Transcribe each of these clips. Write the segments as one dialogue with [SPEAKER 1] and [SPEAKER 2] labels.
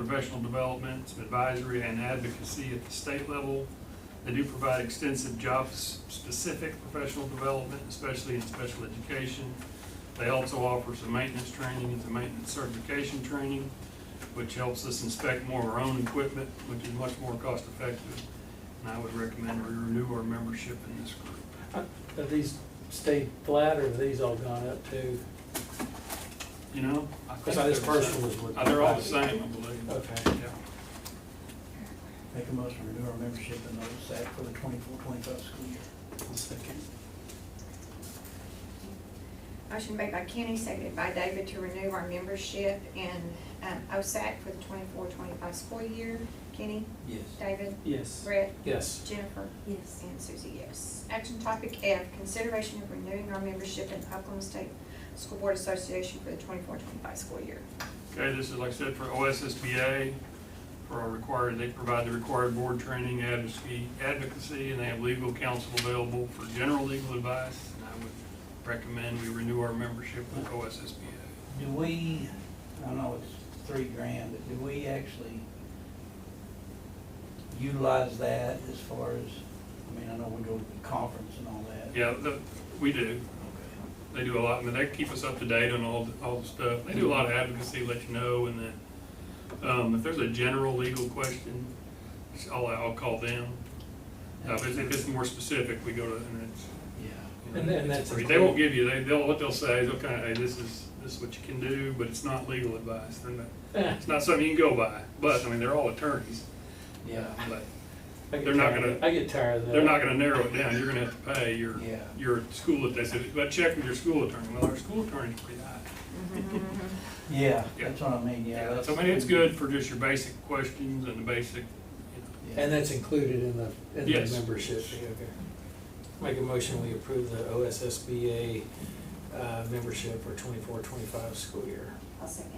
[SPEAKER 1] professional development, some advisory and advocacy at the state level. They do provide extensive job-specific professional development, especially in special education. They also offer some maintenance training and some maintenance certification training, which helps us inspect more of our own equipment, which is much more cost-effective. And I would recommend we renew our membership in this group.
[SPEAKER 2] Have these stayed flat or have these all gone up too?
[SPEAKER 1] You know? I think
[SPEAKER 2] Because I, this
[SPEAKER 1] they're the
[SPEAKER 2] first
[SPEAKER 1] same.
[SPEAKER 2] one was looking.
[SPEAKER 1] Uh, They're all the same, I believe.
[SPEAKER 2] Okay.
[SPEAKER 1] Yeah.
[SPEAKER 3] Make a motion to renew our membership in OSAC for the 24-25 school year.
[SPEAKER 4] Motion made by Kenny, seconded by David to renew our membership in um, OSAC for the 24-25 school year. Kenny?
[SPEAKER 3] Yes.
[SPEAKER 4] David?
[SPEAKER 2] Yes.
[SPEAKER 4] Brett?
[SPEAKER 2] Yes.
[SPEAKER 4] Jennifer?
[SPEAKER 5] Yes.
[SPEAKER 4] And Susie, yes. Action topic F, consideration of renewing our membership in Oklahoma State School Board Association for the 24-25 school year.
[SPEAKER 1] Okay, this is like I said, for OSSBA, for our required, they provide the required board training, advocacy, advocacy, and they have legal counsel available for general legal advice. And I would recommend we renew our membership with OSSBA.
[SPEAKER 3] Do we, I know it's three grand, but do we actually utilize that as far as, I mean, I know we go to the conference and all that.
[SPEAKER 1] Yeah, the, we do.
[SPEAKER 3] Okay.
[SPEAKER 1] They do a lot, and they keep us up to date on all, the- all the stuff. They do a lot of advocacy, let you know, and then, um, if there's a general legal question, it's all, I'll call them. Uh, but if it's more specific, we go to, and it's,
[SPEAKER 3] Yeah.
[SPEAKER 2] And then that's.
[SPEAKER 1] Free. They won't give you, they, they'll, what they'll say is, okay, hey, this is, this is what you can do, but it's not legal advice, They're not-
[SPEAKER 2] Eh,
[SPEAKER 1] it's not something you can go by, but, I mean, they're all attorneys,
[SPEAKER 3] Yeah.
[SPEAKER 1] but
[SPEAKER 2] I get
[SPEAKER 1] They're not
[SPEAKER 2] tired-
[SPEAKER 1] gonna-
[SPEAKER 2] I get tired of that.
[SPEAKER 1] they're not gonna narrow it down, you're gonna have to pay your,
[SPEAKER 3] Yeah.
[SPEAKER 1] your school, they said, but check with your school attorney, well, our school attorney's pretty high.
[SPEAKER 3] Yeah,
[SPEAKER 1] Yeah.
[SPEAKER 3] that's what I mean, yeah. that's-
[SPEAKER 1] So, I mean, it's good for just your basic questions and the basic, you
[SPEAKER 3] Yeah.
[SPEAKER 2] And that's included in the, in the
[SPEAKER 1] Yes.
[SPEAKER 2] membership. fee, okay. Make a motion, we approve the OSSBA, uh, membership for twenty-four, twenty-five school year.
[SPEAKER 5] I'll second.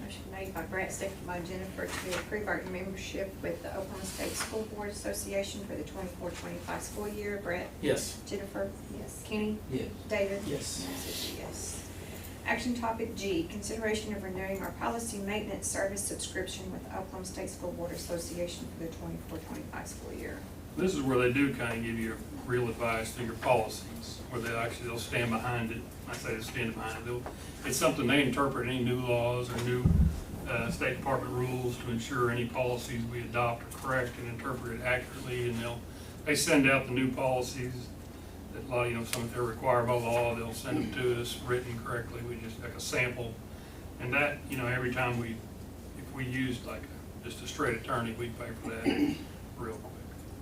[SPEAKER 4] Motion made by Brett, seconded by Jennifer to approve our membership with the Oklahoma State School Board Association for the 24-25 school year. Brett?
[SPEAKER 2] Yes.
[SPEAKER 4] Jennifer?
[SPEAKER 5] Yes.
[SPEAKER 4] Kenny?
[SPEAKER 3] Yes.
[SPEAKER 4] David?
[SPEAKER 2] Yes.
[SPEAKER 4] And Susie, yes. Action topic G, consideration of renewing our policy maintenance service subscription with the Oklahoma State School Board Association for the 24-25 school year.
[SPEAKER 1] know. This is where they do kinda give you real advice through your policies, where they actually, they'll stand behind it, I say they stand behind it, they'll, it's something they interpret any new laws or new uh, State Department rules to ensure any policies we adopt are correct and interpreted accurately, and they'll, they send out the new policies that a lot, you know, some if they're required by law, they'll send them to us written correctly, we just, like a sample. And that, you know, every time we, if we used like just a straight attorney, we'd pay for that real quick.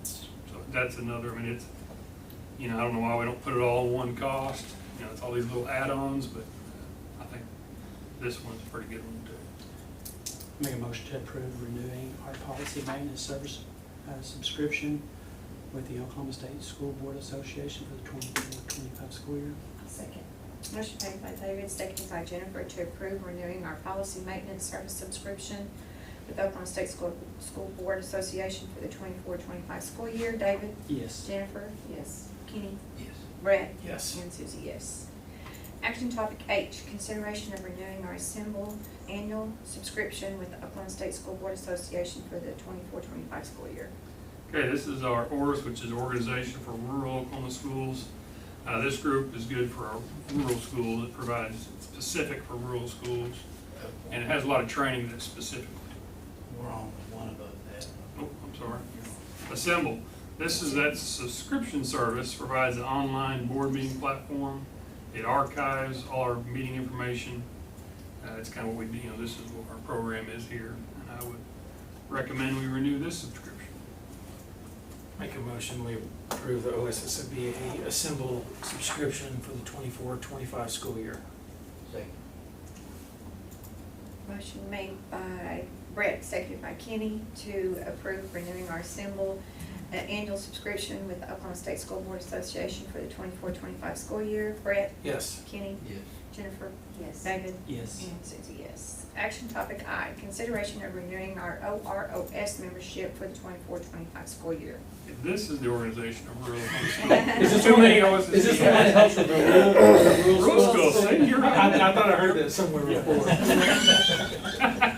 [SPEAKER 1] So that's another, I mean, it's, you know, I don't know why we don't put it all in one cost, you know, it's all these little add-ons, but I think this one's a pretty good one too.
[SPEAKER 6] Make a motion to approve renewing our policy maintenance service uh, subscription with the Oklahoma State School Board Association for the 24-25 school year.
[SPEAKER 5] I'll second.
[SPEAKER 4] Motion made by David, seconded by Jennifer to approve renewing our policy maintenance service subscription with Oklahoma State School, School Board Association for the 24-25 school year. David?
[SPEAKER 6] Yes.
[SPEAKER 4] Jennifer?
[SPEAKER 5] Yes.
[SPEAKER 4] Kenny?
[SPEAKER 3] Yes.
[SPEAKER 4] Brett?
[SPEAKER 2] Yes.
[SPEAKER 4] And Susie, yes. Action topic H, consideration of renewing our assembled annual subscription with the Oklahoma State School Board Association for the 24-25 school year.
[SPEAKER 1] Okay, this is our ORS, which is Organization for Rural Oklahoma Schools. Uh, this group is good for our rural schools. It provides specific for rural schools, and it has a lot of training that's specific.
[SPEAKER 3] We're on with one above that.
[SPEAKER 1] Oh, I'm sorry. Assemble. This is, that subscription service provides an online board meeting platform. It archives all our meeting information. Uh, it's kind of what we, do. you know, this is what our program is here, and I would recommend we renew this subscription.
[SPEAKER 2] Make a motion, we approve the OSSBA assemble subscription for the twenty-four, twenty-five school year.
[SPEAKER 3] Second.
[SPEAKER 4] Motion made by Brett, seconded by Kenny, to approve renewing our assembled uh, annual subscription with the Oklahoma State School Board Association for the 24-25 school year. Brett?
[SPEAKER 2] Yes.
[SPEAKER 4] Kenny?
[SPEAKER 3] Yes.
[SPEAKER 4] Jennifer?
[SPEAKER 5] Yes.
[SPEAKER 4] David?
[SPEAKER 6] Yes.
[SPEAKER 4] And Susie, yes. Action topic I, consideration of renewing our OROS membership for the 24-25 school year.
[SPEAKER 1] This is the organization of rural
[SPEAKER 2] Is this
[SPEAKER 1] Too
[SPEAKER 2] one-
[SPEAKER 1] many OSSBA.
[SPEAKER 2] Is this the one that helps with the rule?
[SPEAKER 1] Rural schools, see, you're
[SPEAKER 2] I,
[SPEAKER 1] right.
[SPEAKER 2] I thought I heard that somewhere before.